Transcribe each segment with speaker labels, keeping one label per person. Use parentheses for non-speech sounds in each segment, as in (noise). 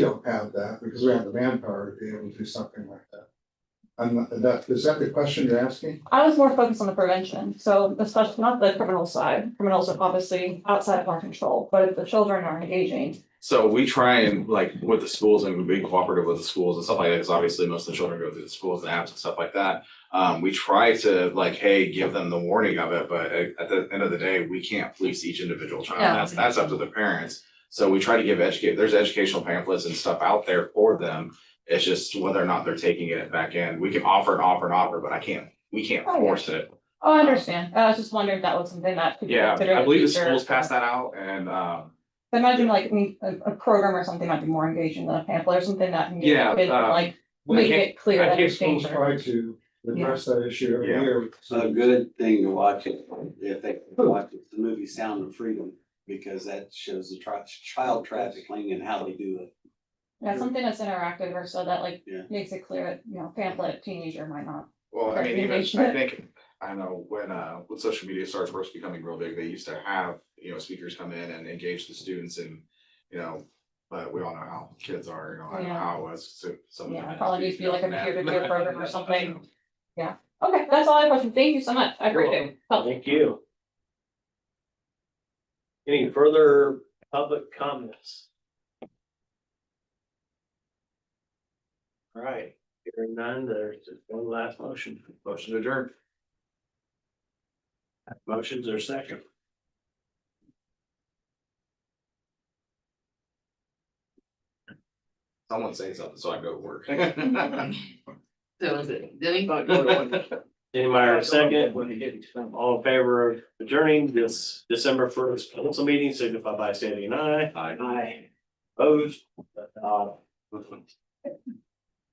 Speaker 1: don't have that because we have the manpower to be able to do something like that. And that, is that the question you're asking?
Speaker 2: I was more focused on the prevention, so the special, not the criminal side, criminals are obviously outside of our control, but if the children are engaging.
Speaker 3: So we try and like with the schools and being cooperative with the schools and stuff like that, because obviously most of the children go through the schools and apps and stuff like that. Um, we try to like, hey, give them the warning of it, but uh, at at the end of the day, we can't police each individual child.
Speaker 4: No.
Speaker 3: That's, that's up to the parents. So we try to give educate, there's educational pamphlets and stuff out there for them. It's just whether or not they're taking it back in. We can offer and offer and offer, but I can't, we can't
Speaker 2: Oh, yeah.
Speaker 3: force it.
Speaker 2: Oh, I understand, I was just wondering if that was something that. could be
Speaker 3: Yeah,
Speaker 2: considered in
Speaker 3: I believe the
Speaker 2: future.
Speaker 3: schools passed that out and, um,
Speaker 2: I Imagine like me- a, a program or something might be more engaging than a pamphlet or something that. can get
Speaker 3: Yeah,
Speaker 2: kids,
Speaker 3: uh,
Speaker 2: Like,
Speaker 3: I
Speaker 2: make
Speaker 3: can't-
Speaker 2: it clear
Speaker 3: I
Speaker 2: that
Speaker 3: can't
Speaker 2: it's
Speaker 1: Schools
Speaker 2: danger.
Speaker 1: try to address that issue every
Speaker 3: Yeah.
Speaker 1: year.
Speaker 5: a good thing to watch it, if they watch it, the movie Sound of Freedom, because that shows the tri- child trafficking and how they do it.
Speaker 2: Yeah, something that's interactive or so that like
Speaker 5: Yeah.
Speaker 2: makes it clear that, you know, pamphlet teenager might not.
Speaker 3: Well, I
Speaker 2: Right,
Speaker 3: mean,
Speaker 2: we
Speaker 3: even, I
Speaker 2: mentioned it.
Speaker 3: think, I know when, uh, when social media starts first becoming real big, they used to have, you know, speakers come in and engage the students and, you know, but we all know how kids are, you know, I know
Speaker 2: Yeah.
Speaker 3: how it was, so some of
Speaker 2: Yeah,
Speaker 3: them.
Speaker 2: probably needs to be like a peer-to-peer
Speaker 3: (laughs)
Speaker 2: program or something.
Speaker 3: Yeah.
Speaker 2: Okay, that's all I have question. Thank you so much. I appreciate it. Helpful.
Speaker 6: Thank you. Any further public comments? All right, hearing none, there's just one last motion.
Speaker 3: Motion adjourned.
Speaker 6: Motions are second.
Speaker 3: Someone say something, so I go to work. (laughs)
Speaker 4: So is it Denny?
Speaker 6: Danny Meyer, second. All in favor of adjourning this December first council meeting, signify by stating aye.
Speaker 3: Aye.
Speaker 6: Aye. Opposed? Uh,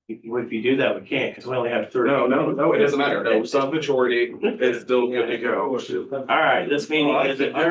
Speaker 6: If you if you do that, we can't, because we only have three.
Speaker 3: No, no, no, it doesn't matter. No, sub majority is still good to go.
Speaker 6: All right, this meeting is adjourned.